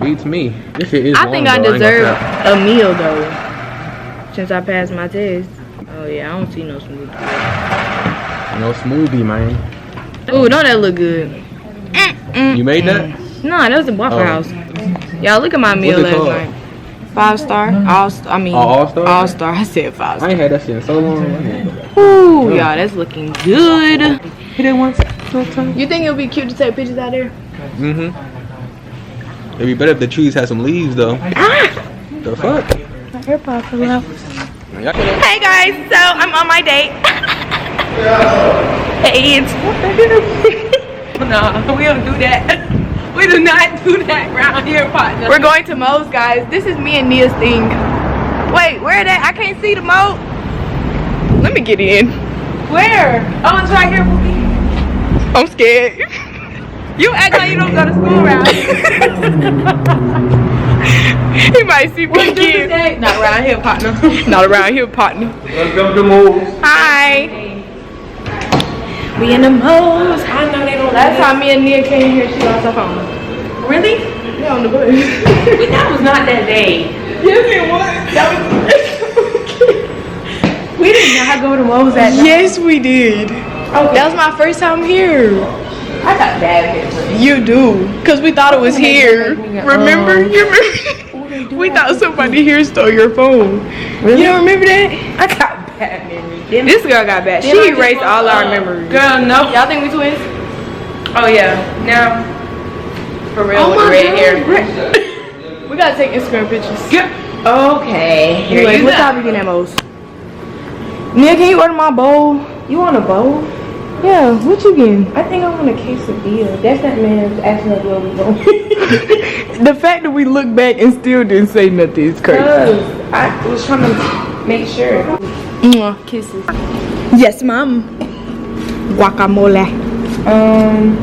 Beats me. This shit is I think long, I though. ain't gonna deserve cap. a meal though, since I passed my test. Oh yeah, I don't see no smoothie. No smoothie, man. Ooh, don't that look good? You made that? Nah, that was a Waffle Oh. House. Y'all look at my meal it last called? night. Five star, all star. I mean, Oh, All Star? All star. I said five I star. ain't had that shit in so long. I ain't- Oh. Ooh, y'all, that's looking good. You think it would be cute to take pictures out there? Mm-hmm. It'd be better if the trees had some leaves, though. Ah! The fuck? My AirPods are Hey guys, so I'm on my date. hey, it's no, we don't do that. We do not do that around here, partner. We're going to Moe's, guys. This is me and Nia's thing. Wait, where that? I can't see the Moe. Let me get in. Where? Oh, it's right here, Boogie. I'm scared. You act like you don't go to school around here. he might see me again. Not around here, partner. Not around here, partner. Welcome to Moles. Hi. We in the most. I know they don't. Last time me and Nia came here, she lost her phone. Really? Yeah, on the bus. but that was not that day. Yes, it was. That was. we did not go to Moe's that night. Yes, we did. Oh, That was my first time here. I got bad You do, cause we thought it was here. Remember? You remember? We thought somebody here stole your phone. You don't remember that? I got bad memories. This girl got bad. She erased all our memories. Girl, no. Y'all think we twins? Oh yeah. Now, for real, with the red hair. we gotta take Instagram pictures. Okay. Anyway, what time we getting at most? Nia, can you order my bowl? You want a bowl? Yeah, what you getting? I think I want a quesadilla. That's that man's asking us where we going. the fact that we look back and still didn't say nothing is crazy. I was trying to make sure. Kisses. Yes, mom. Guacamole. Um.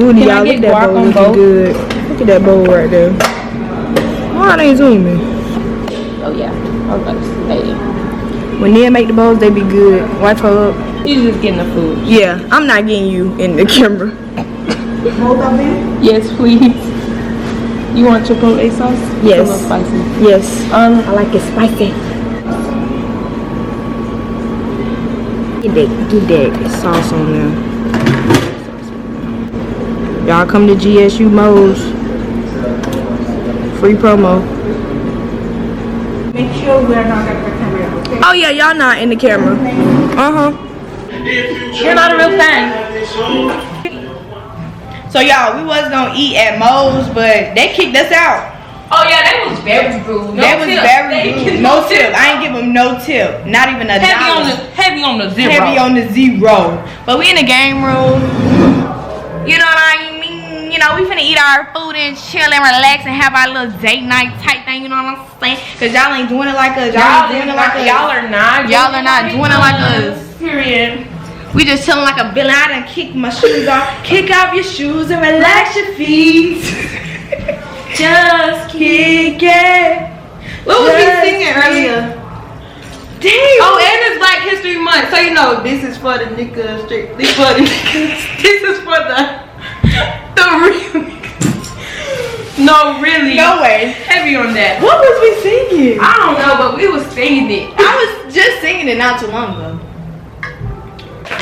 Ooh, y'all look at that bowl looking good. Look at that bowl right there. Why are they zooming? Oh yeah, I was about to say. When they make the bowls, they be good. Wipe her up. He's just getting the food. Yeah, I'm not getting you in the camera. Yes, please. You want chipotle sauce? Yes. It's a little spicy. Yes. Um, I like it spicy. Get that, get that sauce on there. Y'all come to GSU Mo's. Free promo. Make sure we're not in the camera. Oh yeah, y'all not in the camera. Uh huh. you're not a real fan. So y'all, we was gonna eat at Mo's, but they kicked us out. Oh yeah, that was very rude. No that was tip. They very rude. give No tip. I ain't give them no tip. Not even a Heavy dollar. on the heavy on the zero. heavy on the zero. But we in the game room. You know what I mean? You know, we finna eat our food and chill and relax and have our little date night type thing, you know what I'm saying? Cause y'all ain't doing it like us. Y'all, y'all, ain't doing it is like not, us. y'all are not. Y'all are not doing it like us. Period. We just chilling like a villain. I done kick my shoes off. Kick off your shoes and relax your feet. Just kick it. What was Just we singing kick- earlier? Damn. Oh, and it's Black History Month, so you know this is for the niggas. Strictly for the niggas. This is for the the real. niggas. No, really. no way. Heavy on that. What was we singing? I don't know, but we was singing it. I was just singing it not too long ago.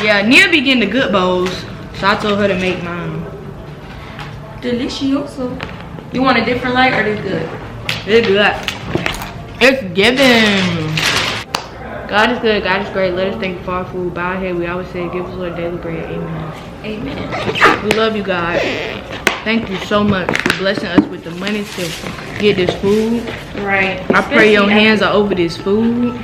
Yeah, Nia be getting the good bowls, so I told her to make mine. Delicioso. You want a different light or this good? It's good. It's giving. God is good, God is great. Let us thank you for our food. Bow our head. We always say, give us our daily bread. Amen. Amen. We love you, God. Thank you so much for blessing us with the money to get this food. Right. I pray your hands are over this food.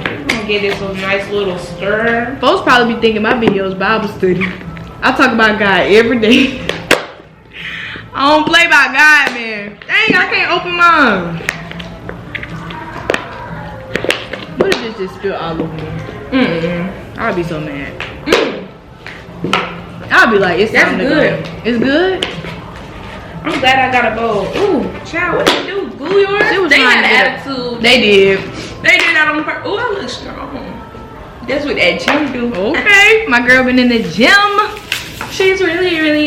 I'm gonna get this a nice little stir. Folks probably be thinking my videos Bible study. I talk about God every day. I don't play by God, man. Dang, I can't open mine. What if this just spilled all over me? Mm. I'd be so mad. Mm. I'd be like, it's That's time to good. go. It's good. I'm glad I got a bowl. Ooh, child, what they do? Glue yours? She was they trying had to get a- attitude. They did. They did that on purpose. Ooh, I look strong. That's what that gym do. Okay. My girl been in the gym. She's really, really